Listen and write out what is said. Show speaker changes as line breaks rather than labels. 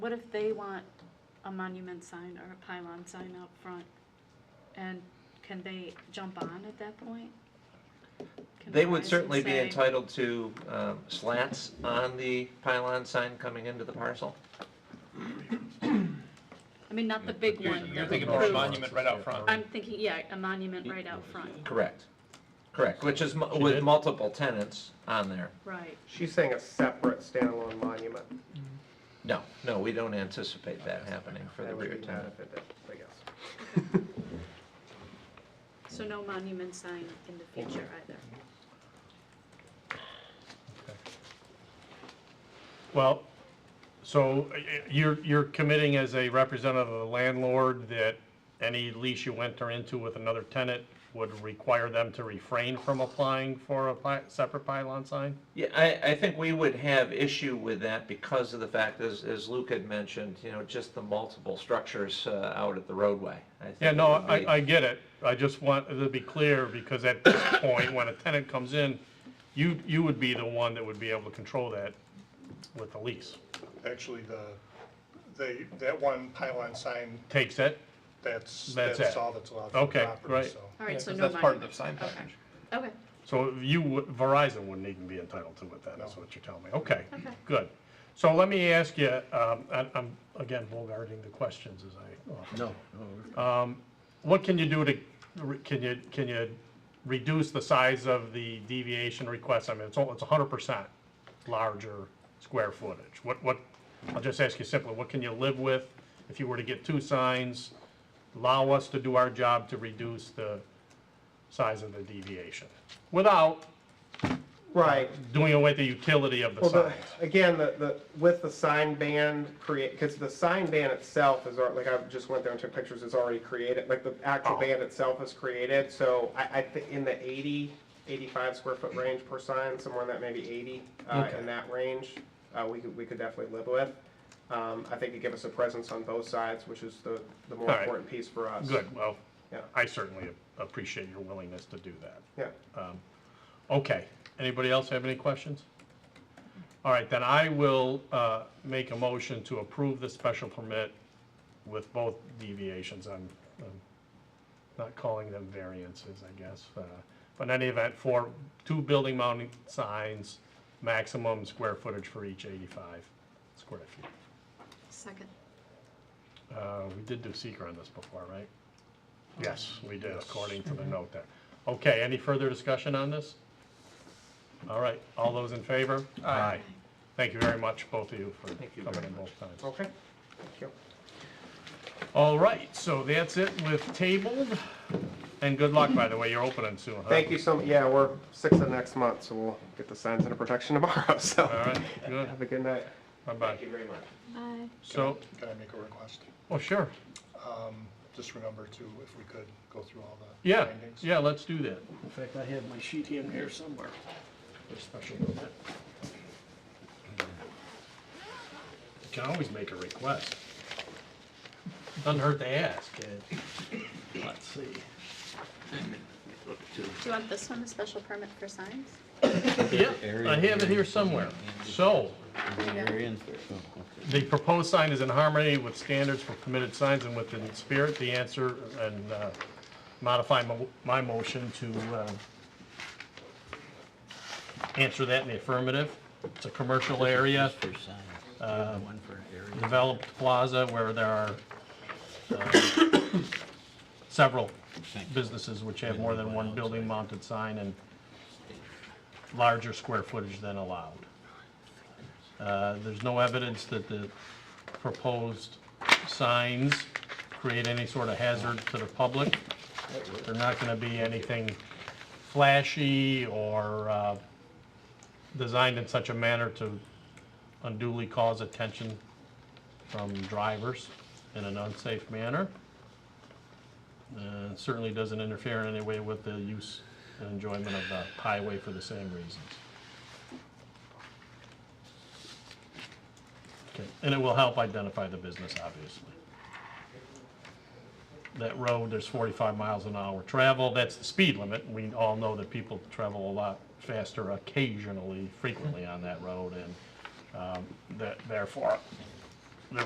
What if they want a monument sign or a pylon sign out front? And can they jump on at that point? Can
They
the
would
rising
certainly be
say-
entitled to um, slats on the pylon sign coming into the parcel.
I mean, not the big
You're-
one.
You're
that
thinking
we
of a
approved.
monument right out front.
I'm thinking, yeah, a monument right out front,
Correct. Correct, which is mu-
She
with
did.
multiple tenants on there.
right.
She's saying a separate standalone monument.
No, no, we don't anticipate that happening for the
That would
rear
be
tenant.
benefited, I guess.
So no monument sign in the future either.
Well, so uh, you're, you're committing as a representative of the landlord that any lease you enter into with another tenant would require them to refrain from applying for a pi- separate pylon sign?
Yeah, I, I think we would have issue with that because of the fact, as, as Luke had mentioned, you know, just the multiple structures uh, out at the roadway. I think
Yeah,
it
no,
would be-
I, I get it. I just want to be clear, because at this point, when a tenant comes in, you, you would be the one that would be able to control that with the lease.
Actually, the, they, that one pylon sign,
Takes it?
that's,
That's
that's
it.
all that's allowed for the
Okay,
property,
great.
so.
All right, so no
That's part of the
monument.
sign
Okay.
package.
Okay,
So you, would- Verizon wouldn't even be entitled to it, then, is what you're telling me. Okay,
Okay.
good. So let me ask you, um, I- I'm, again, bogarting the questions as I often Um,
No.
what can you do to, can you, can you reduce the size of the deviation request? I mean, it's, all- it's hundred percent larger square footage. What, what, I'll just ask you simply, what can you live with if you were to get two signs? Allow us to do our job to reduce the size of the deviation without
Right.
doing away with the utility of the
Well, the,
signs.
again, the, the, with the sign ban create, because the sign ban itself is, al- like, I just went there and took pictures, it's already created, like, the actual
Oh.
ban itself is created, so I, I think in the 80, 85 square foot range per sign, somewhere in that maybe 80, uh,
Okay.
in that range, uh, we could, we could definitely live with. Um, I think it give us a presence on both sides, which is the, the more
All right.
important piece for us.
Good, well,
Yeah.
I certainly appreciate your willingness to do that.
Yeah.
Okay, anybody else have any questions? All right, then I will uh, make a motion to approve the special permit with both deviations. I'm I'm not calling them variances, I guess. uh, But in any event, for two building mounting signs, maximum square footage for each 85 square feet.
second.
Uh, We did do seeker on this before, right? Yes, we did, according to the note there. Okay, any further discussion on this? All right, all those in favor? Aye. Thank you very much, both of you, for
Thank you
coming
very
in
much.
both times.
Okay, thank you.
All right, so that's it with tabled, and good luck, by the way, you're opening soon, huh?
Thank you so, much. yeah, we're six of next month, so we'll get the signs under protection tomorrow, so.
All right, good,
Have a good night.
bye-bye.
very much.
Bye.
So,
Can I make a request?
oh, sure,
Just remember to, if we could, go through all the
yeah,
findings.
yeah, let's do that.
In fact, I have my sheet in here somewhere.
for special permit. You can always make a request. Doesn't hurt to ask.
Let's see. Look to
Do you want this one, the special permit for signs?
Yeah, I have it here somewhere. So,
variance. Oh, okay.
the proposed sign is in harmony with standards for permitted signs and within the spirit, the answer, and uh, modify mo- my motion to uh, answer that in the affirmative. It's a commercial area.
For sign. Do you have the one for an area?
developed plaza where there are um, several businesses which have more than one building mounted sign and larger square footage than allowed. Uh, There's no evidence that the proposed signs create any sort of hazard to the public. They're not going to be anything flashy or uh, designed in such a manner to unduly cause attention from drivers in an unsafe manner. Uh, Certainly doesn't interfere in any way with the use and enjoyment of the highway for the same reasons. Okay, And it will help identify the business, obviously. That road, there's 45 miles an hour travel, that's the speed limit. We all know that people travel a lot faster occasionally, frequently on that road, and um, that therefore